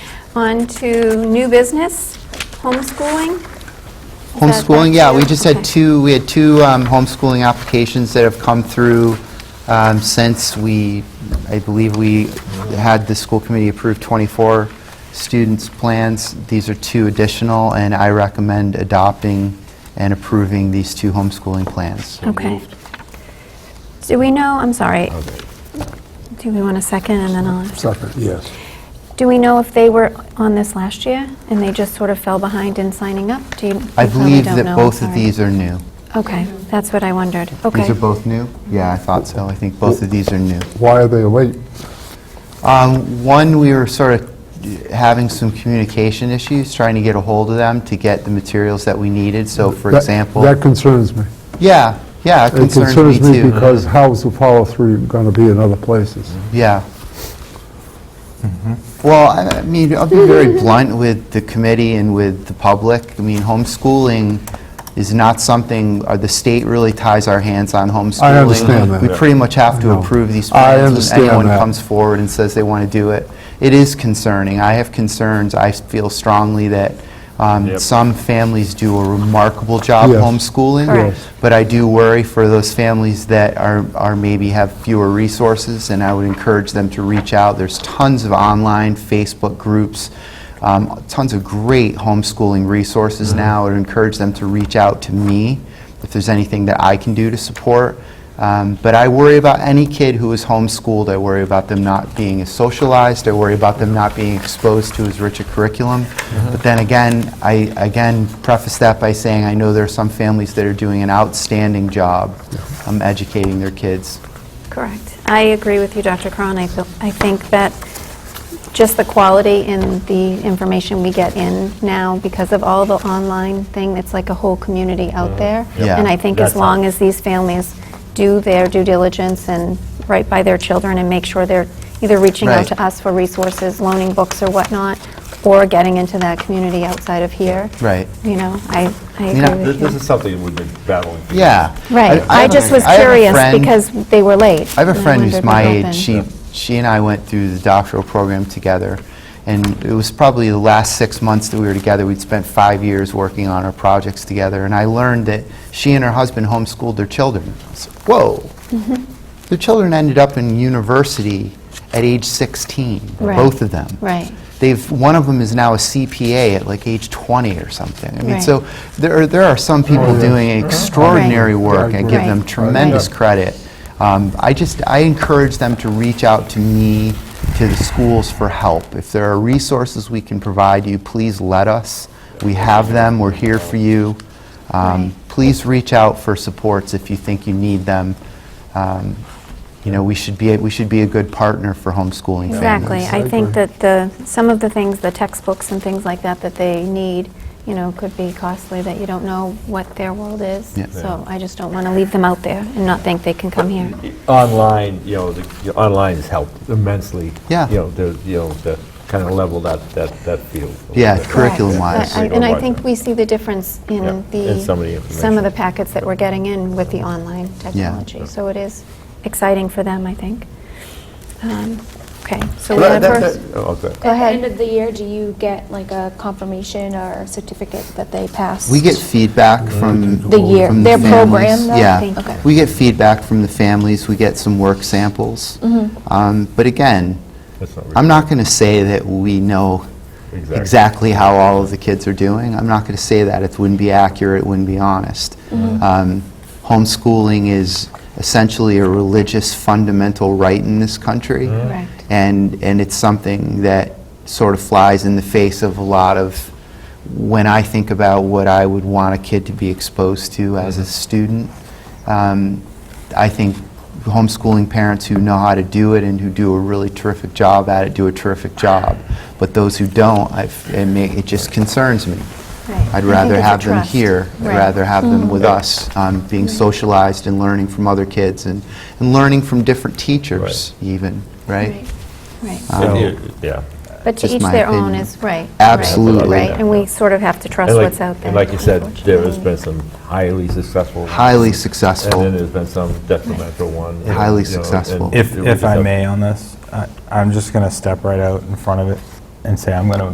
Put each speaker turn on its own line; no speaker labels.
On to new business, homeschooling. Is that
Homeschooling,
right?
yeah, we just
Okay.
had two, we had two um, homeschooling applications that have come through um, since we, I believe we had the school committee approve 24 students' plans. These are two additional, and I recommend adopting and approving these two homeschooling plans.
Okay. Do we know, I'm sorry, do we want a second and then I'll ask?
Second, yes.
Do we know if they were on this last year and they just sort of fell behind in signing up? Do you?
I
you probably
believe
don't
that
know, I'm
both of
sorry.
these are new.
Okay, that's what I wondered. Okay.
These are both new? Yeah, I thought so. I think both of these are new.
Why are they late?
Um, One, we were sort of having some communication issues, trying to get a hold of them to get the materials that we needed. So, for
That-
example,
That concerns me.
yeah, yeah, it
It
concerns me too.
because how is the follow-through going to be in other places?
Yeah. Mm-hmm. Well, I I mean, I'll be very blunt with the committee and with the public. I mean, homeschooling is not something, uh, the state really ties our hands on homeschooling.
understand that.
We pretty much have to
I know.
approve these
I
plans when
understand
anyone
that.
comes forward and says they want to do it. It is concerning. I have concerns. I feel strongly that um,
Yep.
some families do a remarkable job
Yes.
homeschooling.
Correct. Yes.
But I do worry for those families that are, are maybe have fewer resources, and I would encourage them to reach out. There's tons of online Facebook groups, um, tons of great homeschooling resources now. I would encourage them to reach out to me if there's anything that I can do to support. Um, but I worry about any kid who is homeschooled. I worry about them not being as socialized. I worry about them not being exposed to as rich a curriculum. But then again, I again preface that by saying I know there are some families that are doing an outstanding job um, educating their kids.
Correct. I agree with you, Dr. Cron. I feel- I think that just the quality in the information we get in now because of all the online thing, it's like a whole community out there.
Mm-hmm. Yeah.
And I think as
That's
long
all.
as these families do their due diligence and right by their children and make sure they're either reaching out
Right.
to us for resources, loaning books or whatnot, or getting into that community outside of here.
Right.
You know, I I
You know,
agree
This
with
this is
you.
something we've been battling. for
Yeah.
Right. I
have a-
just was
I have a
curious
friend-
because they were late.
I have a
and
friend who's
wondered
my
what
age.
happened.
She, she and I went through the doctoral program together, and it was probably the last six months that we were together. We'd spent five years working on our projects together, and I learned that she and her husband homeschooled their children. I was like, Whoa!
Mm-hmm.
Their children ended up in university at age 16,
Right.
both of them.
Right.
They've, one of them is now a CPA at like age 20 or something. I mean,
Right.
so there are, there are some people doing extraordinary
Right.
work. I give
Right.
them
Right.
tremendous
Yeah.
credit. Um, I just, I encourage them to reach out to me, to the schools for help. If there are resources we can provide you, please let us. We have them, we're here for you. Um,
Right.
Please reach out for supports if you think you need them. Um, You know, we should be, a- we should be a good partner for homeschooling
Exactly.
families.
I think that the, some of the things, the textbooks and things like that that they need, you know, could be costly, that you don't know what their world is.
Yeah.
So I just don't want to leave them out there and not think they can come here.
Online, you know, the- you know, online has helped immensely.
Yeah.
You know, the, you know, the kind of level that, that, that field.
Yeah,
a little bit.
correct. Curriculum-wise.
But I- And I think we see the difference
Yeah,
in
in some of
the,
the
some of
information.
the packets that we're getting in with the online technology. So it is exciting for them, I think. Um, Okay, so we
But
have
that-
first.
that- oh, okay.
Go
At
ahead.
the end of the year, do you get like a confirmation or a certificate that they passed?
We get feedback from.
The year-
from
their program,
families.
though?
Yeah.
Thank you. Okay.
We get feedback from the families, we get some work samples.
Mm-hmm.
Um, But again,
That's not
I'm not going to say that we know
Exactly.
exactly how all of the kids are doing. I'm not going to say that. It wouldn't be accurate, it wouldn't be honest.
Mm-hmm.
Um, Homeschooling is essentially a religious fundamental right in this country.
Correct.
And, and it's something that sort of flies in the face of a lot of, when I think about what I would want a kid to be exposed to as a student, um, I think homeschooling parents who know how to do it and who do a really terrific job at it do a terrific job. But those who don't, I've- it ma- it just concerns me.
Right. I
I'd
think
rather
it's a
have them
trust.
here. I'd
Right. Mm-hmm.
rather have them with us, um, being socialized and learning from other kids and, and learning from different teachers even, right?
Right.
Um,
And you- Yeah.
But to
uh, Just
each
my
their own
opinion.
is, right. right,
Absolutely.
Right, and we sort of have to trust
And like-
what's out there.
And like you said, there has
unfortunately.
been some highly successful. ones.
Highly
And then
successful.
there's been some detrimental one. and,
Highly
you know, and
successful.
it
If,
was
if
just
I
a-
may on this, I- I'm just going to step right out in front of it and say I'm going to